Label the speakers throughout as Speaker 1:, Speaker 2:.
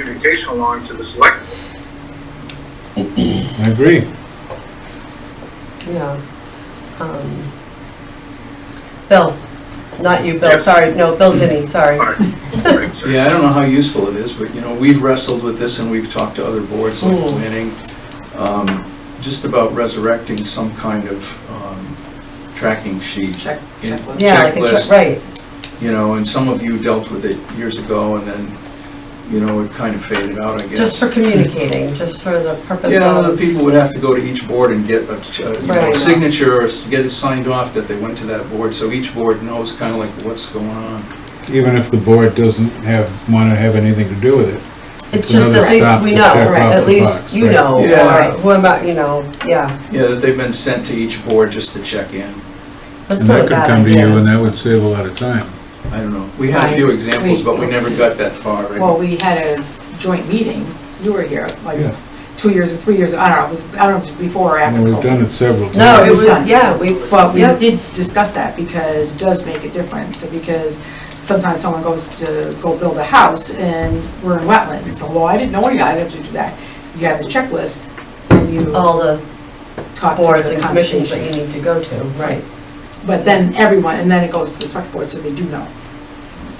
Speaker 1: communication along to the select. board.
Speaker 2: I agree.
Speaker 3: Yeah. Um, Bill, not you, Bill, sorry, no, Bill Zinni, sorry.
Speaker 1: All right. All right, so-
Speaker 4: Yeah, I don't know how useful it is, but, you know, we've wrestled with this and we've talked to other boards like
Speaker 3: Mm.
Speaker 4: planning, um, just about resurrecting some kind of um, tracking sheet.
Speaker 5: Check-
Speaker 4: in-
Speaker 5: checklist.
Speaker 3: Yeah, like a check,
Speaker 4: checklist,
Speaker 3: right,
Speaker 4: You know, and some of you dealt with it years ago and then, you know, it kind of faded out, I guess.
Speaker 3: just for communicating, just for the purpose
Speaker 4: Yeah, the
Speaker 3: of,
Speaker 4: people would have to go to each board and get a ch- uh, you know,
Speaker 3: Right.
Speaker 4: signature or s- get it signed off that they went to that board, so each board knows kind of like what's going on.
Speaker 2: Even if the board doesn't have, want to have anything to do with it.
Speaker 3: it's just
Speaker 2: another
Speaker 3: at least
Speaker 2: stop
Speaker 3: we
Speaker 2: to
Speaker 3: know,
Speaker 2: check
Speaker 3: right,
Speaker 2: off
Speaker 3: at
Speaker 2: the box,
Speaker 3: least you
Speaker 2: right.
Speaker 3: know,
Speaker 4: Yeah.
Speaker 3: or who am I, you know, yeah,
Speaker 4: Yeah, that they've been sent to each board just to check in.
Speaker 3: that's
Speaker 2: And
Speaker 3: not a
Speaker 2: that could
Speaker 3: bad
Speaker 2: come to you and
Speaker 3: idea.
Speaker 2: that would save a lot of time.
Speaker 4: I don't know. We had a few examples, but we never got that far,
Speaker 5: Well,
Speaker 4: right?
Speaker 5: we had a joint meeting, you were here,
Speaker 2: Yeah.
Speaker 5: like, two years or three years, I don't know, it was, I don't know, if it was before or after
Speaker 2: And we've
Speaker 5: COVID.
Speaker 2: done it several times.
Speaker 3: No, it would, yeah, we,
Speaker 5: But we
Speaker 3: yeah,
Speaker 5: did discuss that because it does make a difference, because sometimes someone goes to go build a house and we're in wetland, and so, well, I didn't know any, I'd have to do that. You have this checklist, and you
Speaker 6: Oh,
Speaker 3: all the
Speaker 5: talk to
Speaker 3: boards
Speaker 5: the
Speaker 3: and commissions that
Speaker 5: conservation.
Speaker 3: you need to go to, right.
Speaker 5: But then everyone, and then it goes to the select board, so they do know.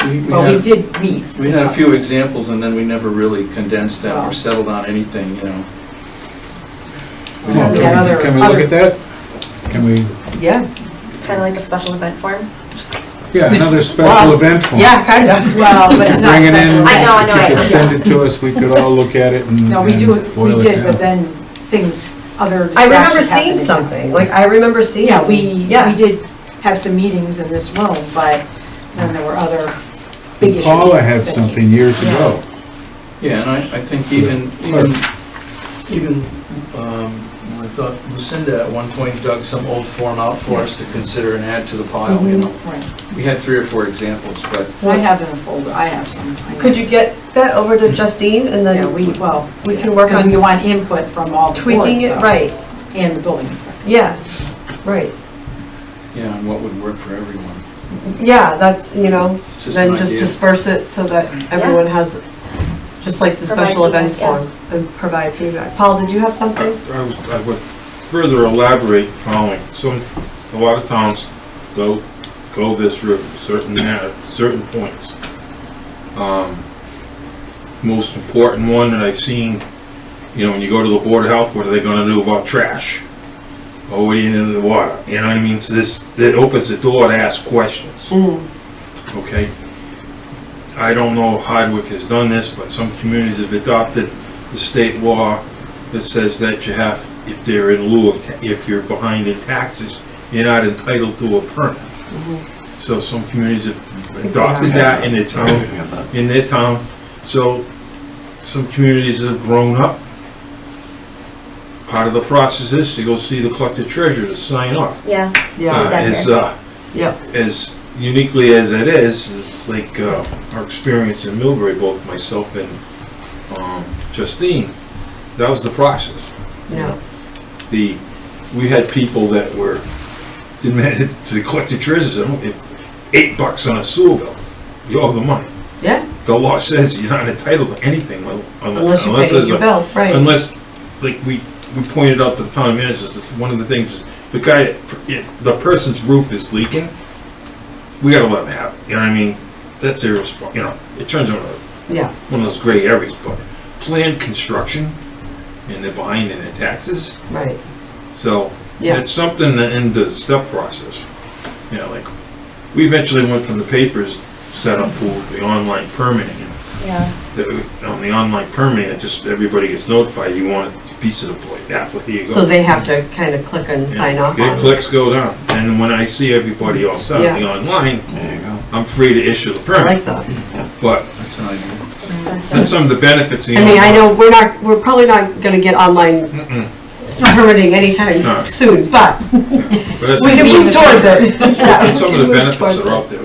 Speaker 4: We- we
Speaker 5: But we
Speaker 4: had-
Speaker 5: did meet.
Speaker 4: We had a few examples, and then we never really condensed them or settled on anything, you know?
Speaker 5: So
Speaker 2: Come
Speaker 5: we
Speaker 2: on,
Speaker 5: had
Speaker 2: Can
Speaker 5: other-
Speaker 2: we- can we look
Speaker 5: other-
Speaker 2: at that? Can we,
Speaker 3: Yeah,
Speaker 6: Kind of like a special event form. Just kidding.
Speaker 2: yeah, another special
Speaker 3: Wow.
Speaker 2: event form.
Speaker 3: yeah, kind of.
Speaker 5: Well, but it's not
Speaker 2: Bring it in.
Speaker 5: special.
Speaker 6: I know, I know,
Speaker 2: If you
Speaker 6: I
Speaker 2: could
Speaker 6: know.
Speaker 2: send it to us, we could all look at it and
Speaker 5: No, we
Speaker 2: and
Speaker 5: do,
Speaker 2: boil
Speaker 5: we
Speaker 2: it
Speaker 5: did, but
Speaker 2: down.
Speaker 5: then things, other
Speaker 3: I remember
Speaker 5: distractions
Speaker 3: seeing
Speaker 5: happened.
Speaker 3: something, like, I remember seeing.
Speaker 5: Yeah, we, we
Speaker 3: Yeah.
Speaker 5: did have some meetings in this room, but then there were other big issues.
Speaker 2: Paula had
Speaker 5: that came-
Speaker 2: something years
Speaker 5: Yeah.
Speaker 2: ago.
Speaker 4: Yeah, and I, I think even, even, even, um, I thought Lucinda at one point dug some old form out for us to consider and add to the pile,
Speaker 5: Mm-hmm.
Speaker 4: you know?
Speaker 3: Mm-hmm.
Speaker 5: Right.
Speaker 4: We had three or four examples, but
Speaker 5: I have it in a folder, I have some. I know.
Speaker 3: Could you get that over to Justine and
Speaker 5: Yeah,
Speaker 3: then
Speaker 5: we, well.
Speaker 3: we can work
Speaker 5: Because
Speaker 3: on-
Speaker 5: we want input from all the boards,
Speaker 3: tweaking it,
Speaker 5: though,
Speaker 3: right,
Speaker 5: And the building inspector.
Speaker 3: yeah, right.
Speaker 4: yeah, and what would work for everyone.
Speaker 3: Yeah, that's, you know,
Speaker 4: Just an
Speaker 3: then just
Speaker 4: idea.
Speaker 3: disperse it so that everyone has, just like the
Speaker 6: Provide
Speaker 3: special
Speaker 6: feedback,
Speaker 3: events
Speaker 6: yeah.
Speaker 3: form, and provide feedback. Paul, did you have
Speaker 7: I
Speaker 3: something?
Speaker 7: I was- I would further elaborate following, some, a lot of towns go, go this route, certain, ma- certain points. Um, Most important one that I've seen, you know, when you go to the Board of Health, what are they gonna do about trash? Or what do you do to the water, you know what I mean, so this, it opens the door to ask questions, okay? I don't know if Hardwick has done this, but some communities have adopted the state law that says that you have, if they're in lieu of, ta- if you're behind in taxes, you're not entitled to a permit. So some communities have adopted that in their town, in their town. So some communities have grown up. Part of the process is to go see the collector treasurer to sign off.
Speaker 6: Yeah.
Speaker 3: Yeah,
Speaker 6: done
Speaker 7: As,
Speaker 6: here.
Speaker 7: uh,
Speaker 3: yeah,
Speaker 7: as uniquely as it is, it's like uh, our experience in Millbury, both myself and um, Justine, that was the process. you
Speaker 3: Yeah.
Speaker 7: know. The, we had people that were, demanded to collect the treasures, eight bucks on a sewer bill, you owe the money.
Speaker 3: yeah,
Speaker 7: The law says you're not entitled to anything unless,
Speaker 3: unless you
Speaker 7: unless
Speaker 3: pay
Speaker 7: there's
Speaker 3: your
Speaker 7: a
Speaker 3: bill, right.
Speaker 7: Unless, like, we, we pointed out to the town ministers, that one of the things, is the guy, the person's roof is leaking, we gotta let him have, it, you know what I mean? That's irresponsible, you know, it turns out
Speaker 3: Yeah,
Speaker 7: one of those gray areas, but planned construction, and they're behind in their taxes,
Speaker 3: right,
Speaker 7: so
Speaker 3: yeah,
Speaker 7: it's something that in the step process, you know, like, we eventually went from the papers setup to the online permitting,
Speaker 6: Yeah.
Speaker 7: that on the online permit, it just, everybody gets notified, you want a piece of the plate, apple, here you go.
Speaker 3: so they have to kind of click and
Speaker 7: Yeah.
Speaker 3: sign off
Speaker 7: It
Speaker 3: on it.
Speaker 7: clicks go down, and when I see everybody all set on the online, I'm free to issue the
Speaker 3: I
Speaker 7: permit,
Speaker 3: like that.
Speaker 7: but
Speaker 4: That's an idea.
Speaker 2: Mm.
Speaker 6: It's
Speaker 7: that's
Speaker 6: expensive.
Speaker 7: some of the benefits of the
Speaker 3: I mean, I
Speaker 7: online.
Speaker 3: know, we're not, we're probably not gonna get online
Speaker 7: Mm-mm.
Speaker 3: permitting
Speaker 7: No.
Speaker 3: anytime soon, but
Speaker 7: But that's-
Speaker 3: we can move towards it. Yeah,
Speaker 7: Some
Speaker 3: we
Speaker 7: of
Speaker 3: can
Speaker 7: the
Speaker 3: move
Speaker 7: benefits
Speaker 3: towards
Speaker 7: that are
Speaker 3: it.
Speaker 7: out there.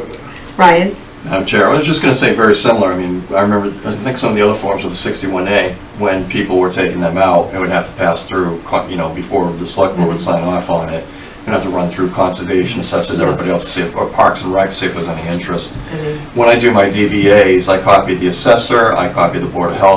Speaker 3: Ryan?
Speaker 8: Madam Chair, I was just going to say very similar. I mean, I remember, I think some of the other forms with the 61A, when people were taking them out, it would have to pass through, co- you know, before the select board would sign off on it. You'd have to run through conservation, such as everybody else, to see if, or Parks and Rec, to see if there's any interest. When I do my DVAs, I copy the assessor, I copy the Board of Health,